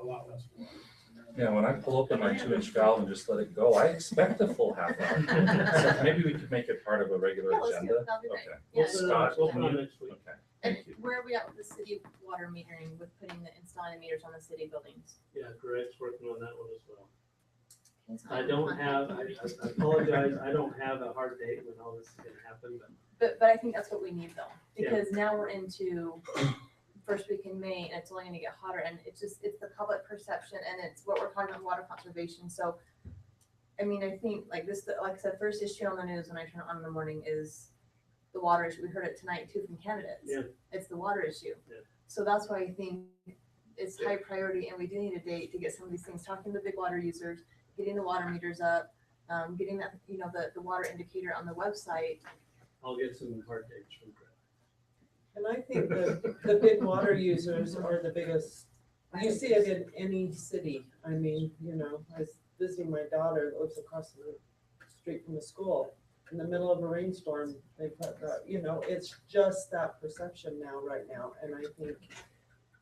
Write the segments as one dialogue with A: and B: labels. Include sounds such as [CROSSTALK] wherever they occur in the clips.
A: a lot less water.
B: Yeah, when I pull up in my two inch valve and just let it go, I expect a full half hour. So Maybe we could make it part of a regular
C: Yeah, let's do
B: agenda.
C: it, that'll be great.
B: Okay,
A: We'll
C: Yeah.
A: put it on- we'll put it on next week.
B: okay.
C: And
B: Thank you.
C: where are we at with the city water metering, with putting the, installing the meters on the city buildings?
A: Yeah, Greg's working on that one as well.
C: It's not
A: I don't
C: on-
A: have, I I apologize, I don't have a hard date when all this is gonna happen, but
C: But, but I think that's what we need though,
A: Yeah.
C: because now we're into first week in May and it's only gonna get hotter and it's just, it's the public perception and it's what we're talking about water conservation, so. I mean, I think like this, like I said, first issue on the news when I turn it on in the morning is the water issue. We heard it tonight too from candidates.
A: Yeah.
C: It's the water issue.
A: Yeah.
C: So that's why I think it's high priority and we do need a date to get some of these things, talking to the big water users, getting the water meters up, um, getting that, you know, the, the water indicator on the website.
A: I'll get some hard dates from
C: [LAUGHS]
A: Greg.
D: And I think that the big water users are the biggest, you see it in any city. I mean, you know, I was visiting my daughter that lives across the street from the school. In the middle of a rainstorm, they put, the- you know, it's just that perception now, right now. And I think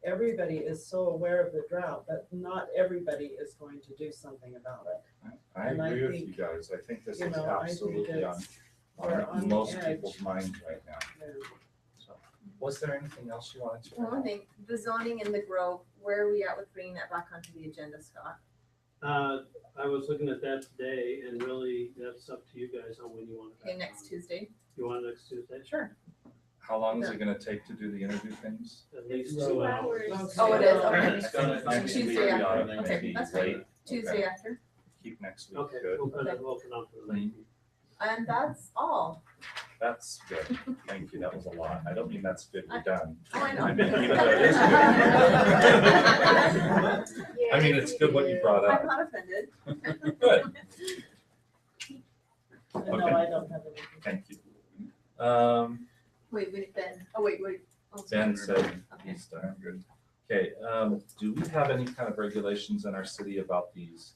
D: everybody is so aware of the drought, but not everybody is going to do something about it.
B: I
D: And I
B: agree with you
D: think,
B: guys. I think this
D: you
B: is
D: know, I think
B: absolutely on,
D: it's- we're on
B: on
D: the
B: most
D: edge.
B: people's minds right now.
D: And
B: So, Was there anything else you wanted to? bring
C: One
B: up?
C: thing, the zoning in the Grove, where are we at with bringing that back onto the agenda, Scott?
A: Uh, I was looking at that today and really that's up to you guys on when you want it.
C: Okay,
A: back
C: next
A: on.
C: Tuesday?
A: You want it next Tuesday?
C: Sure.
B: How long is it gonna take to do the interview things?
A: At least
E: Two
A: two
E: hours.
A: hours.
C: Oh, it is, okay.
B: It's gonna- next week,
C: Tuesday,
B: we
C: yeah.
B: ought to
C: Okay,
B: be
C: that's
B: late.
C: fine. Tuesday after?
B: Keep next week
A: Okay,
B: good.
A: we'll put it, we'll put it on for the late.
C: And that's all.
B: That's good. Thank you. That was a lot. I don't mean that's good. We're
C: I-
B: done.
C: Oh, I know.
B: I mean, even though it is good. [LAUGHS]
C: [LAUGHS]
B: I mean, it's good what you brought
C: I'm
B: up.
C: not offended.
B: [LAUGHS] Good.
D: no, I don't have anything.
B: Thank you. Um,
C: Wait, wait, Ben, oh, wait, wait. Oh,
B: Ben said
C: Okay.
B: he's done. Good. Okay, um, do we have any kind of regulations in our city about these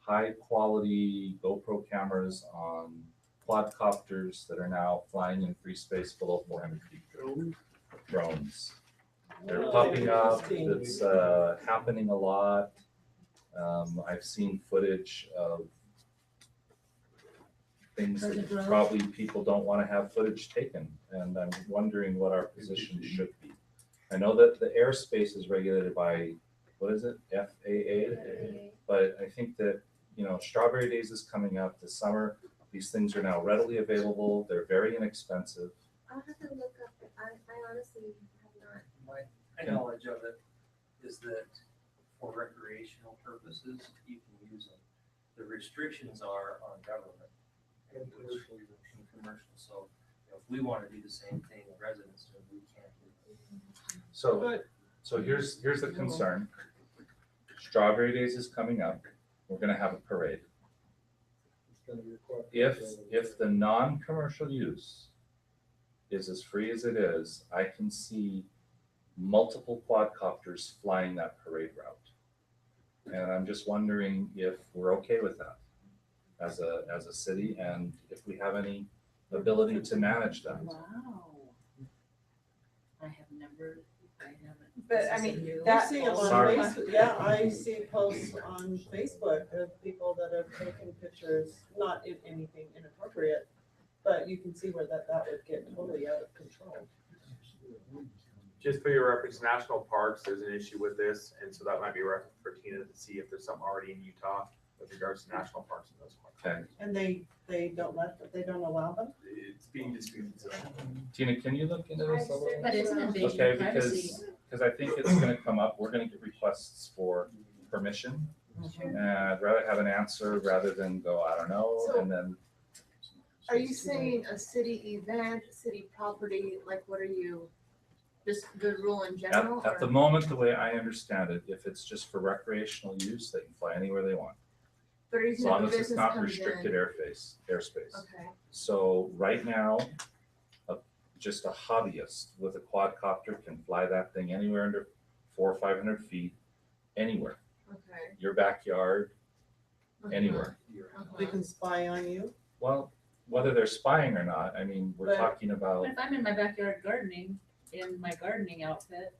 B: high-quality GoPro cameras on quadcopters that are now flying in free space below four hundred feet? Drones. They're
D: Oh,
B: popping up,
D: interesting.
B: it's, uh, happening a lot. Um, I've seen footage of things
D: Are the
B: that
D: drones-
B: probably people don't wanna have footage taken, and I'm wondering what our position should be. I know that the airspace is regulated by, what is it, FAA? But I think that, you know, Strawberry Days is coming up this summer. These things are now readily available, they're very inexpensive.
F: I'll have to look up, I, I honestly have not.
G: My knowledge of it is that for recreational purposes, you can use them. The restrictions are on government. And commercial. And commercial, so you know, if we want to do the same thing in residence, then we can't. do it.
B: So, so here's, here's the concern. Strawberry Days is coming up. We're gonna have a parade. If, if the non-commercial use is as free as it is, I can see multiple quadcopters flying that parade route. And I'm just wondering if we're okay with that as a, as a city and if we have any ability to manage that.
H: Wow. I have never, I haven't.
C: But
H: this
C: I
H: is
C: mean,
H: new.
D: I see it on
B: Sorry.
D: Facebook, yeah, I see posts on Facebook of people that have taken pictures, not in anything inappropriate, but you can see where that, that would get totally out of control.
I: Just for your reference, national parks, there's an issue with this, and so that might be a reference for Tina to see if there's something already in Utah with regards to national parks and those. ones.
B: Okay,
D: And they, they don't let, they don't allow them?
I: It's being disputed, so.
B: Tina, can you look into this a little?
H: But it's an invasion
B: Okay,
H: of
B: because,
H: privacy.
B: because I think it's gonna come up, we're gonna get requests for permission. And I'd rather have an answer rather than go, I don't know, and then,
C: Are you saying a city event, city property, like what are you, just the rule in
B: at,
C: general?
B: at the
C: or-
B: moment, the way I understand it, if it's just for recreational use, they can fly anywhere they want.
C: But are you
B: As
C: saying
B: long
C: if
B: as
C: a
B: it's
C: business
B: not
C: comes
B: restricted
C: in?
B: airface, airspace.
C: Okay,
B: So right now, a, just a hobbyist with a quadcopter can fly that thing anywhere under four or five hundred feet, anywhere,
C: okay.
B: your backyard,
C: Uh-huh,
B: anywhere.
C: uh-huh.
D: They can spy on you?
B: Well, whether they're spying or not, I mean, we're
D: But-
B: talking about. [LAUGHS]
C: [LAUGHS]
H: But if I'm in my backyard
A: [LAUGHS]
C: [LAUGHS]
H: gardening, in my gardening outfit.